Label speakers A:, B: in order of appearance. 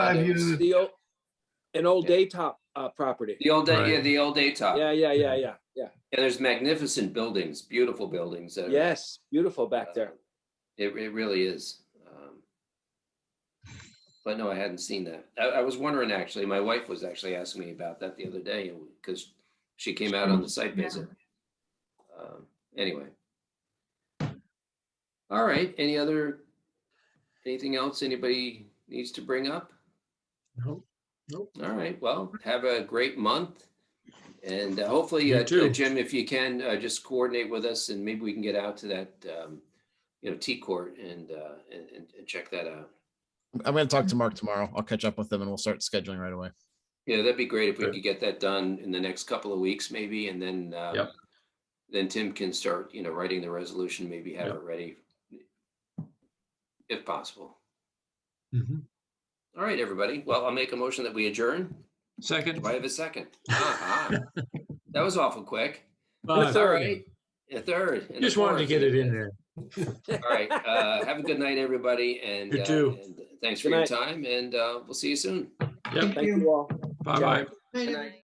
A: Five
B: It's
A: units,
B: The old, an old daytop uh, property.
C: The old,
A: Right.
C: day- yeah, the old day top.
B: Yeah,
C: Yeah,
B: yeah, yeah, yeah, yeah.
C: there's magnificent buildings, beautiful buildings. that are- uh,
B: Yes, beautiful back there.
C: It, it really is. Um, But no, I hadn't seen that. I, I was wondering, actually, my wife was actually asking me about that the other day because she came out on the site visit. Um, Anyway. All right, any other, anything else anybody needs to bring up?
D: No, nope.
C: All right, well, have a great month. And uh, hopefully,
D: You
C: uh,
D: too.
C: Jim, if you can, uh, just coordinate with us and maybe we can get out to that, um, you know, T court and, uh, and, and- and check that out.
E: I'm going to talk to Mark tomorrow. I'll catch up with them and we'll start scheduling right away.
C: Yeah, that'd be great if we
D: Sure.
C: could get that done in the next couple of weeks maybe, and then, uh,
D: Yep.
C: then Tim can start, you know, writing the resolution, maybe have
D: Yep.
C: it ready if possible.
D: Mhm.
C: All right, everybody. Well, I'll make a motion that we adjourn.
D: Second.
C: Do I have a second? Ah, ah. That was awful quick.
D: Bye.
C: That's all right. A third. and a
D: Just wanted to
C: fourth.
D: get it in there.
C: All right. Uh, have a good night, everybody. And,
D: You
C: uh,
D: too.
C: and thanks for
B: Good
C: your
B: night.
C: time. And uh, we'll see you soon.
D: Yep,
B: Thank you all.
D: bye-bye.
B: Good night.